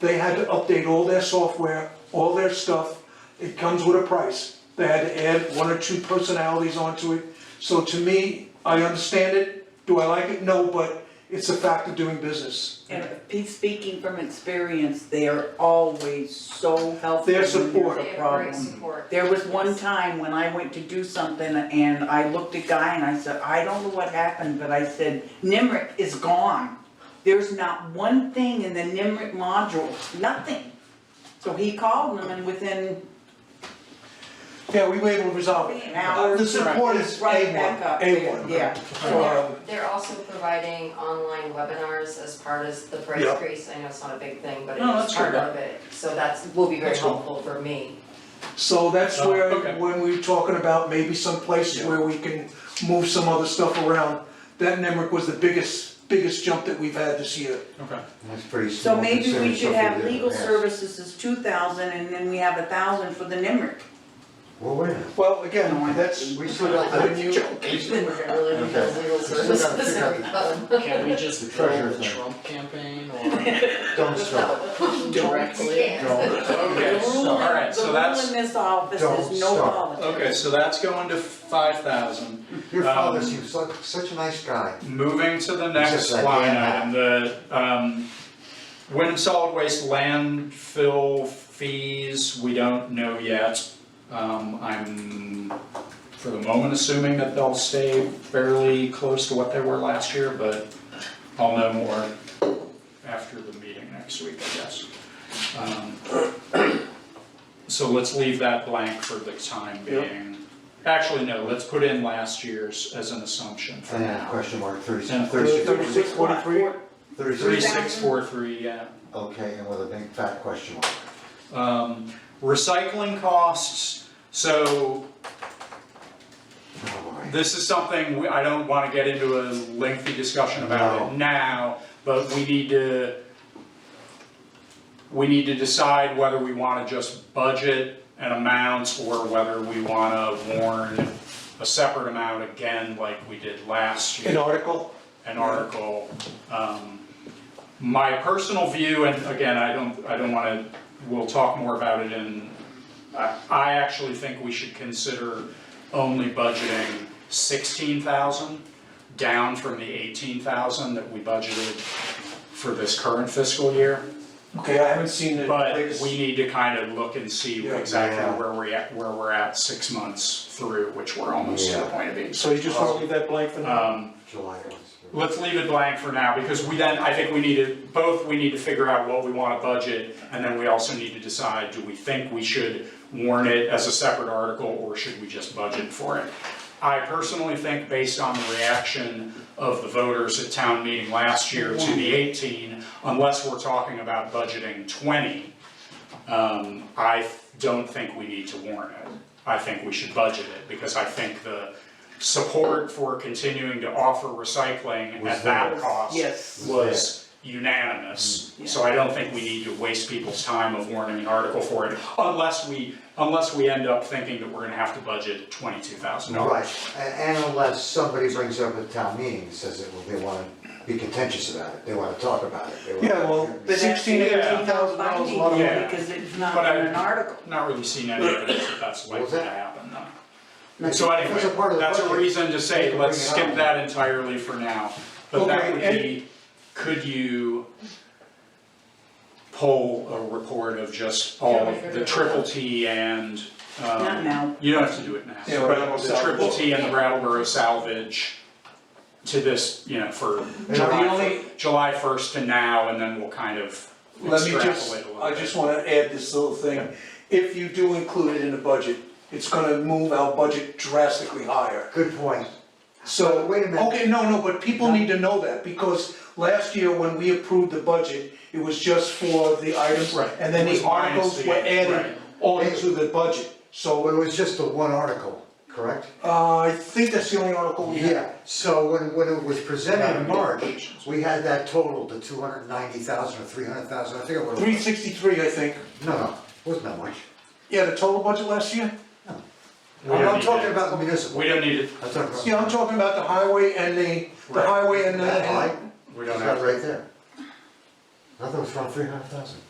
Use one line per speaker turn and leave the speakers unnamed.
They had to update all their software, all their stuff. It comes with a price. They had to add one or two personalities onto it. So to me, I understand it. Do I like it? No, but it's a fact of doing business.
And pe- speaking from experience, they are always so helpful
Their
when there's a
support.
problem.
They have great support.
There was one
Yes.
time when I went to do something and I looked at Guy and I said, I don't know what happened, but I said, Nimric is gone. There's not one thing in the Nimric module, nothing. So he called them and within
Yeah, we were able to resolve it.
an hour.
The support is
it's right back up there.
A1, A1.
Yeah.
And they're,
Um,
they're also providing online webinars as part of the price
Yeah.
increase, I know it's not a big thing, but it
No,
is
that's true.
part of it, so that's, will be very
That's cool.
helpful for me.
So that's
Oh,
where,
okay.
when we we're talking about maybe some places
Yeah.
where we can move some other stuff around, that Nemrick was the biggest, biggest jump that we've had this year.
Okay.
That's pretty small.
So maybe
considering
we should
something
have
that
legal
passed.
services is two thousand and then we have a thousand for the Nimric.
Well, wait a minute,
Well, again, that's,
we still got
when
the,
you,
Then we're gonna really need those legal
Okay. We still gotta
services.
figure out the-
Can we just go
Treasure
the
thing.
Trump campaign or
don't stop,
directly?
Yeah.
don't,
Okay,
The rule in-
so, alright, so
The
that's,
rule in this office
Don't
is no
stop.
politics.
okay, so that's going to five thousand.
your
Um,
father seems like such a nice guy.
Moving to the
just
next
like
line
that.
item, the, um, wind solid waste landfill fees, we don't know yet. Um, I'm, for the moment, assuming that they'll stay fairly close to what they were last year, but I'll know more after the meeting next week, I guess. Um, So let's leave that blank for the time being. Actually, no, let's put in last year's as an assumption for
And then
now.
question mark, thirty,
Yeah.
thirty-six,
Thirty-six. 643?
Three
thirty-six,
six four three, yeah.
okay, and with a big fat question mark.
Um, recycling costs, so
Oh, boy.
this is something, we- I don't wanna get into a lengthy discussion about it now, but we need to, we need to decide whether we wanna just budget an amount or whether we wanna warn a separate amount again like we did last year.
an article,
an article. Um, My personal view, and again, I don't, I don't wanna, we'll talk more about it in, I, I actually think we should consider only budgeting sixteen thousand, down from the eighteen thousand that we budgeted for this current fiscal year.
okay, I haven't seen the
But
latest-
we need to kind of look and see
Yeah.
exactly
Yeah.
where we're at, where we're at six months through, which we're almost to the
Yeah.
point of being.
So you just wanna leave that blank for now?
Um,
July was.
Let's leave it blank for now, because we then, I think we need to, both, we need to figure out what we wanna budget, and then we also need to decide, do we think we should warn it as a separate article, or should we just budget for it? I personally think, based on the reaction of the voters at town meeting last year to the eighteen, unless we're talking about budgeting twenty, um, I don't think we need to warn it. I think we should budget it, because I think the support for continuing to offer recycling
Was
at that
there. Mm.
cost
Yes.
was unanimous. So I don't think we need to waste people's time of warning an article for it, unless we, unless we end up thinking that we're gonna have to budget twenty-two thousand dollars.
Right, a- and unless somebody brings up at town meeting, and says that, well, they wanna be contentious about it, they wanna talk about it, they wanna.
Yeah, well,
But that's
sixteen,
because
yeah.
eighteen thousand dollars, is a lot of
Yeah.
money.
Because it's not
But I-
in an article.
Not really seeing any evidence that that's likely
was
to
that?
happen though.
That's-
So
that's a part
anyway,
of the
that's a
budget.
reason to
You
say,
can
let's
bring it
skip
up.
that entirely for now. But that
Okay,
would
and-
be, could you pull a report of just all of the triple T and, um.
Not now.
You don't have to do it now.
Yeah,
But
Rattleboro
the triple
salvage.
T and the Rattleboro salvage to this, you know, for
the
July,
only-
July first to now, and then we'll kind of
Let me
extrapolate a
just,
little bit.
I just wanna add this little thing. If you do include it in the budget, it's gonna move our budget drastically higher.
Good point,
So,
But wait a minute.
okay, no, no, but people need to know that, because last year when we approved the budget, it was just for the items,
Right.
and then
It was
the articles
YMCA,
were
right.
added onto the budget.
well, it
So,
was just the one article, correct?
uh, I think that's the only article we have.
Yeah, so when, when it was presented in March, we had that total to two hundred and ninety thousand or three hundred thousand, I think it was.
Three sixty-three, I think.
No, no, wasn't that much.
Yeah, the total budget last year?
We
I'm
don't
I'm
need
talking
to-
about the municipal,
We don't need it,
I'm talking about.
Yeah, I'm talking about the highway and the, the
Right.
highway and the.
That line,
we
it's
don't
not
have,
right there. I thought it was around three hundred thousand.